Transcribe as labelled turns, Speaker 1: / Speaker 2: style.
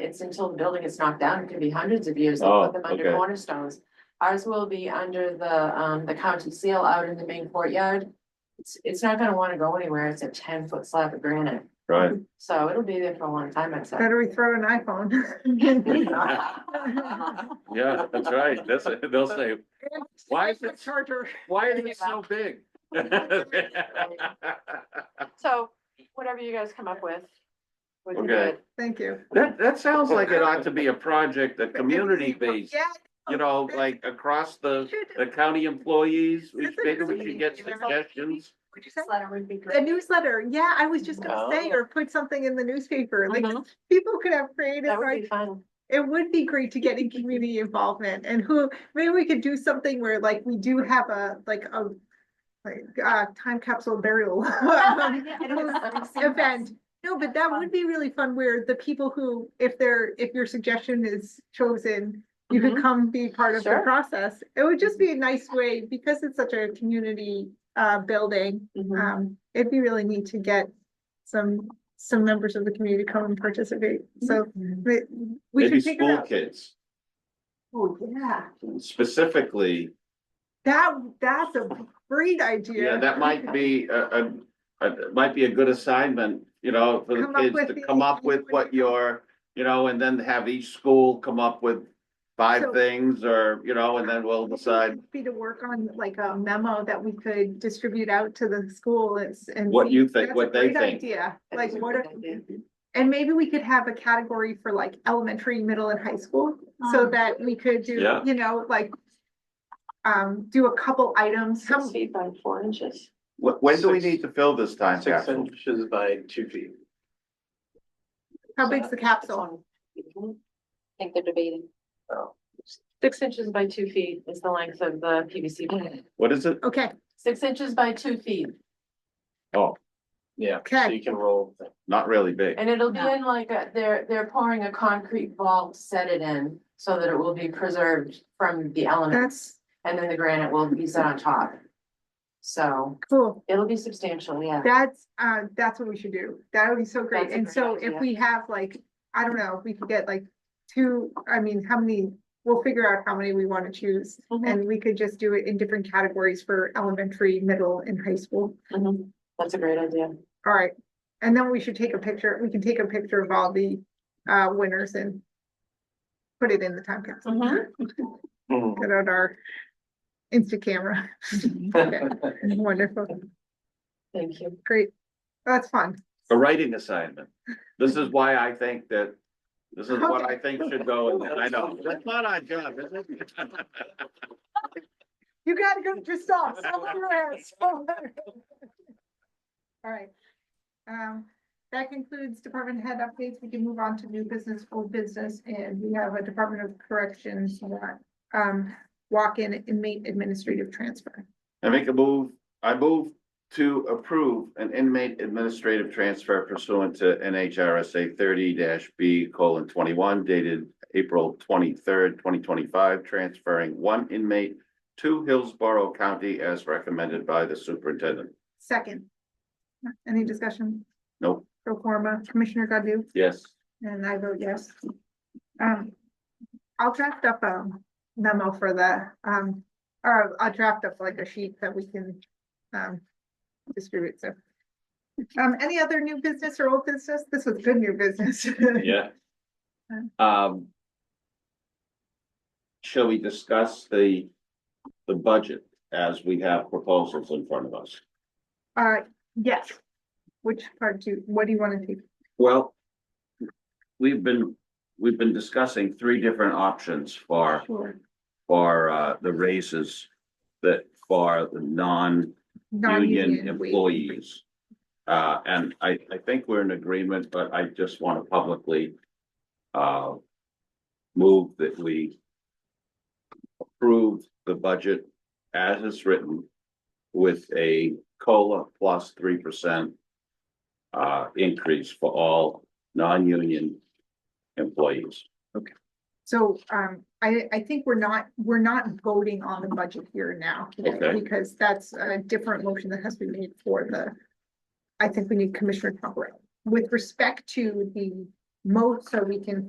Speaker 1: It's until the building is knocked down, it can be hundreds of years, they
Speaker 2: Oh,
Speaker 1: put them under
Speaker 2: okay.
Speaker 1: cornerstones. Ours will be under the, um, the county seal out in the main courtyard. It's, it's not gonna wanna go anywhere, it's a ten foot slab of granite,
Speaker 2: right?
Speaker 1: so it'll be there for a long time, I'd say.
Speaker 3: Better we throw an iPhone.
Speaker 2: Yeah, that's right. That's, they'll say, Why is it-
Speaker 3: Charger.
Speaker 2: why is it so big?
Speaker 1: So, whatever you guys come up with. we can do
Speaker 2: Okay.
Speaker 1: it.
Speaker 3: Thank you.
Speaker 2: That, that sounds like it ought to be a project, a community based,
Speaker 3: Yeah.
Speaker 2: you know, like across the,
Speaker 3: should-
Speaker 2: the county employees. We should- Maybe we should get suggestions.
Speaker 3: what'd you say?
Speaker 1: Newsletter would be
Speaker 3: A
Speaker 1: great.
Speaker 3: newsletter, yeah, I was just gonna say,
Speaker 2: Oh.
Speaker 3: or put something in the newspaper, like,
Speaker 1: Mhm.
Speaker 3: people could have creative,
Speaker 1: That would be
Speaker 3: ideas.
Speaker 1: fun.
Speaker 3: it would be great to get in community involvement, and who, maybe we could do something where, like, we do have a, like, a like, uh, time capsule burial. event. No, but that would be really fun where the people who, if they're, if your suggestion is chosen, you could
Speaker 1: Mhm.
Speaker 3: come be part of the
Speaker 1: Sure.
Speaker 3: process. It would just be a nice way, because it's such a community uh building,
Speaker 1: Mhm.
Speaker 3: um, it'd be really neat to get some, some members of the community to come and participate. So we, we
Speaker 2: Maybe
Speaker 3: should figure
Speaker 2: school
Speaker 3: out.
Speaker 2: kids
Speaker 3: Oh, yeah,
Speaker 2: specifically.
Speaker 3: that, that's a great idea.
Speaker 2: Yeah, that might be a, a, a, it might be a good assignment, you know, for the
Speaker 3: Come up
Speaker 2: kids
Speaker 3: with
Speaker 2: to
Speaker 3: the-
Speaker 2: come up with what your, you know, and then have each school come up with five
Speaker 3: So-
Speaker 2: things or, you know, and then we'll decide
Speaker 3: Be to work on like a memo that we could distribute out to the school and. s- and
Speaker 2: What
Speaker 3: see.
Speaker 2: you think,
Speaker 3: That's a
Speaker 2: what they
Speaker 3: great
Speaker 2: think.
Speaker 3: Idea,
Speaker 1: That
Speaker 3: like
Speaker 1: is a
Speaker 3: what,
Speaker 1: great
Speaker 3: are-
Speaker 1: idea.
Speaker 3: and maybe we could have a category for like elementary, middle and high school, so
Speaker 1: Um,
Speaker 3: that we could do,
Speaker 2: Yeah.
Speaker 3: you know, like. Um, do a couple items,
Speaker 1: Six
Speaker 3: some,
Speaker 1: feet by four inches.
Speaker 2: Wh- When do we
Speaker 4: Six-
Speaker 2: need to fill this time
Speaker 4: Six
Speaker 2: capsule?
Speaker 4: inches by two feet.
Speaker 3: how big's the capsule?
Speaker 5: think they're debating.
Speaker 1: Six inches by two feet is the length of the PVC pipe.
Speaker 2: What is it?
Speaker 3: Okay,
Speaker 1: Six inches by two feet,
Speaker 4: Yeah, so
Speaker 3: okay,
Speaker 4: you can roll. them.
Speaker 2: Not really big.
Speaker 1: and it'll be
Speaker 5: Yeah.
Speaker 1: in like, a- they're, they're pouring a concrete vault, to set it in, so that it will be preserved from the elements,
Speaker 3: that's
Speaker 1: and then the granite will be set on top. So,
Speaker 3: cool.
Speaker 1: it'll be substantial, yeah.
Speaker 3: That's, uh, that's what we should do. That would be so great.
Speaker 1: That's a
Speaker 3: And
Speaker 1: great
Speaker 3: so if
Speaker 1: idea.
Speaker 3: we have like, I don't know, we could get like two, I mean, how many, we'll figure out how many we want to choose.
Speaker 1: Mhm.
Speaker 3: And we could just do it in different categories for elementary, middle and high school.
Speaker 1: Mhm. That's a great idea.
Speaker 3: All right. And then we should take a picture, we can take a picture of all the, uh, winners and put it in the time capsule.
Speaker 1: Mhm.
Speaker 3: Put out our Insta camera. Okay, Wonderful,
Speaker 1: Thank you.
Speaker 3: great. That's fun.
Speaker 2: A writing assignment. This is why I think that, this is what I think should go, in. I know, that's not our job, is it?
Speaker 3: You gotta go, just stop, stop on your ass. All right. Um, that concludes department head updates. We can move on to new business, old business, and we have a Department of Corrections warrant, um, walk-in inmate administrative transfer.
Speaker 2: I make a move, I move to approve an inmate administrative transfer pursuant to NHRSA thirty B colon twenty-one dated April twenty-third, twenty twenty-five, transferring one inmate to Hillsborough County as recommended by the superintendent.
Speaker 3: Second. Any discussion?
Speaker 2: Nope,
Speaker 3: Pro forma, Commissioner Godu,
Speaker 2: yes.
Speaker 3: and I vote yes. Um, I'll draft up a memo for the, um, or I'll draft up like a sheet that we can, um, distribute, so. Um, any other new business or old business? This was good new business.
Speaker 2: Yeah. Um. Shall we discuss the, the budget as we have proposals in front of us?
Speaker 3: Uh, yes. Which part do, what do you want to take?
Speaker 2: Well. We've been, we've been discussing three different options for,
Speaker 3: Sure.
Speaker 2: for, uh, the raises. That for the non-union
Speaker 3: Non-union wage.
Speaker 2: employees. Uh, and I, I think we're in agreement, but I just want to publicly. Uh. Move that we. Approve the budget as it's written. With a COLA plus three percent. Uh, increase for all non-union employees.
Speaker 3: So um, I, I think we're not, we're not voting on the budget here now. today,
Speaker 2: Okay.
Speaker 3: Because that's a different motion that has been made for the, I think we need Commissioner Pombrilla. With respect to the mo, so we can